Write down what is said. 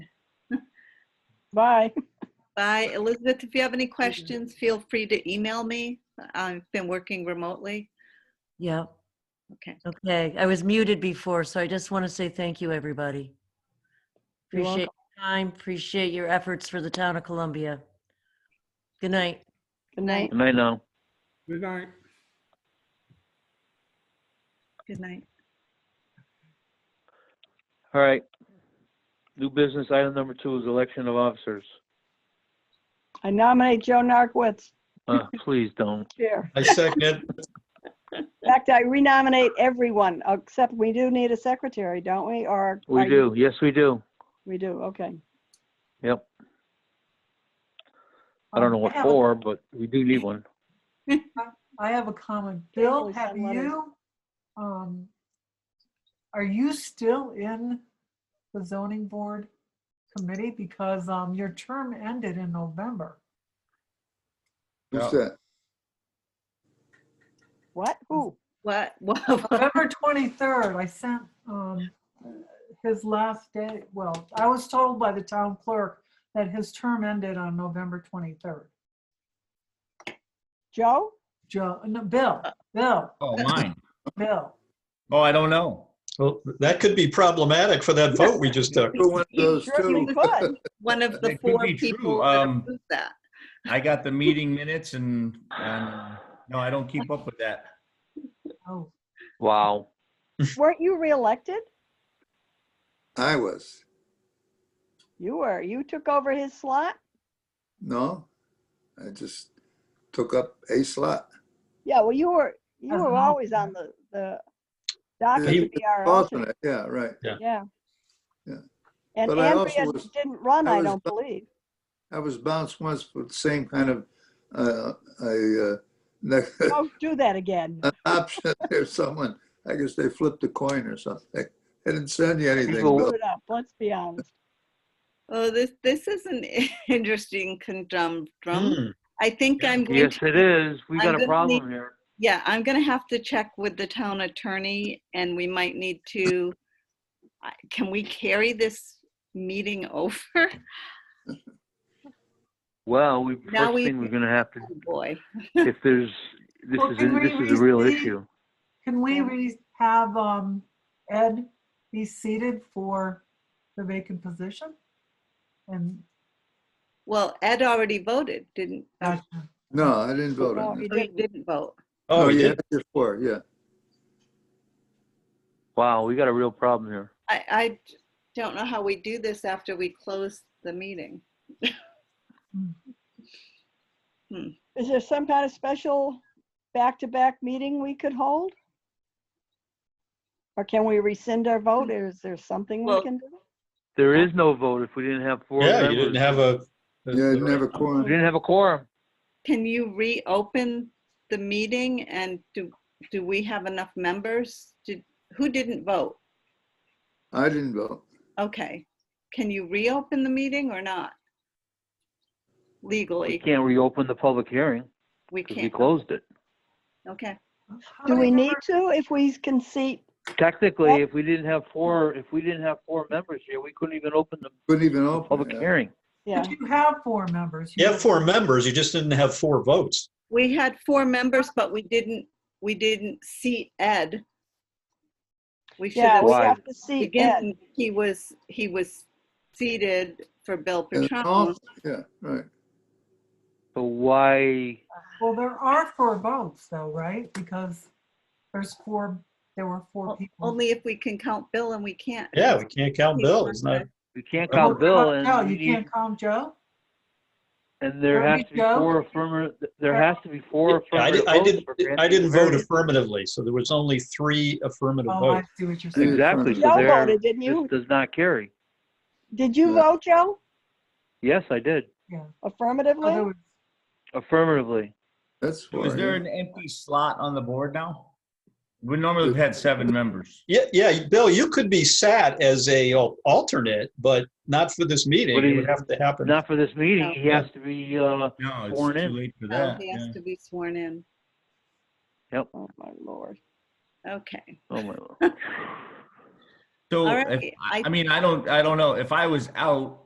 Bye. Bye. Elizabeth, if you have any questions, feel free to email me. I've been working remotely. Yeah, Okay. okay. I was muted before, so I just want to say thank you, everybody. You're Appreciate your time, appreciate your efforts for the town of Columbia. Good night. Good night. Good night now. Good night. Good night. All right. New business item number two is election of officers. I nominate Joe Narcoitz, Uh, please don't. Chair. I second it. In fact, I renominate everyone, except we do need a secretary, don't we? Or? We are you- do. Yes, we do. We do, okay. Yep. I Oh, don't know what Yeah. for, but we do need one. I have a comment. Please Bill, send have letters. you, um, are you still in the zoning board committee? Because, um, your term ended in November. Yeah. Who's that? What? Who? What? Whoa. November 23rd, I sent, um, his last day, well, I was told by the town clerk that his term ended on November 23rd. Joe? Joe, no, Bill, Bill, Oh, mine. Bill. Oh, I don't know. Well, that could be problematic for that vote we just took. Who went those Sure two? you could. One of the That could four be true. people that Um, approved that. I got the meeting minutes and, and, no, I don't keep up with that. Oh, Wow. Weren't you reelected? I was. You were. You took over his slot? No, I just took up a slot. Yeah, well, you were, you As were an always on the, the docket He to be our alternate, Alternate, uh, yeah, right. yeah. Yeah. And But I also Andrea was- didn't run, I I was- don't believe. I was bounced once for the same kind of, uh, a, uh, ne- Don't do that again. an option. There's someone, I guess they flipped a coin or something. They didn't send you anything, People- Screw Bill. it up, let's be honest. Oh, this, this is an interesting conundrum. Hmm. I think I'm going Yes, to it is. We I'm got gonna a problem here. Yeah, I'm gonna have to check with the town attorney and we might need to, I- can we carry this meeting over? Oh, Well, we, Now first we- thing we're gonna have to, Oh, Boy, if there's, this Well, is, can a- we this is a real restate? issue. Can we Yeah. re, have, um, Ed be seated for the vacant position? And, well, Ed already voted, didn't, oh, Gotcha. No, I didn't vote No, on he that. he didn't. didn't vote. No, Oh, you yeah. had your four, yeah. Wow, we got a real problem here. I, I don't know how we do this after we close the meeting. Is there some kind of special back-to-back meeting we could hold? Or can we rescind our vote? Is there something we Well- can do? There is no vote if we didn't have four Yeah, you didn't members. have a. Yeah, you never We quorum. didn't have a quorum. Can you reopen the meeting and do, do we have enough members? Did, who didn't vote? I didn't vote. Okay, can you reopen the meeting or not? We Legally, can't reopen the public hearing we because we can't. closed it. Okay, How Do many we need members- to if we can seat? Technically, if we didn't have four, if we didn't have four members here, we couldn't even open the Couldn't even the open public it. hearing. Yeah, But you have four members. You have four members, you just didn't have four votes. we had four members, but we didn't, we didn't seat Ed. We should yeah, have, we Why? have to seat Ed. again, he was, he was seated for Bill And Petrone. all- Yeah, right. So why, Well, there are four votes though, right? Because there's four, there were four people. Only if we can count Bill and we can't. Yeah, we can't count Bill. It's not, we can't Well, count Bill No, and we you need, can't count Joe? and there Don't has we to be go? four affirmative, there has to be four I affirmative did, I votes did, for granting I didn't the vote variance. affirmatively, so there was only three affirmative Oh, I votes. see what you're saying. Exactly, so Joe there, voted, didn't this you? does not carry. Did you Yeah. vote, Joe? Yes, I did, So Oh, there Affirmatively? was- affirmatively. That's four. Is there yeah. an empty slot on the board now? We normally have had seven members. Yeah, yeah, Bill, you could be sat as a al- alternate, but not for this meeting. But he- It would have to happen. Not for this meeting, he No. has to be, uh, No, it's Sworn too in. late for Oh, that. He yeah. has to be sworn in. Oh, my lord. Okay, oh my lord. All So, right, if- I I- I mean, I don't, I don't know. If I was out,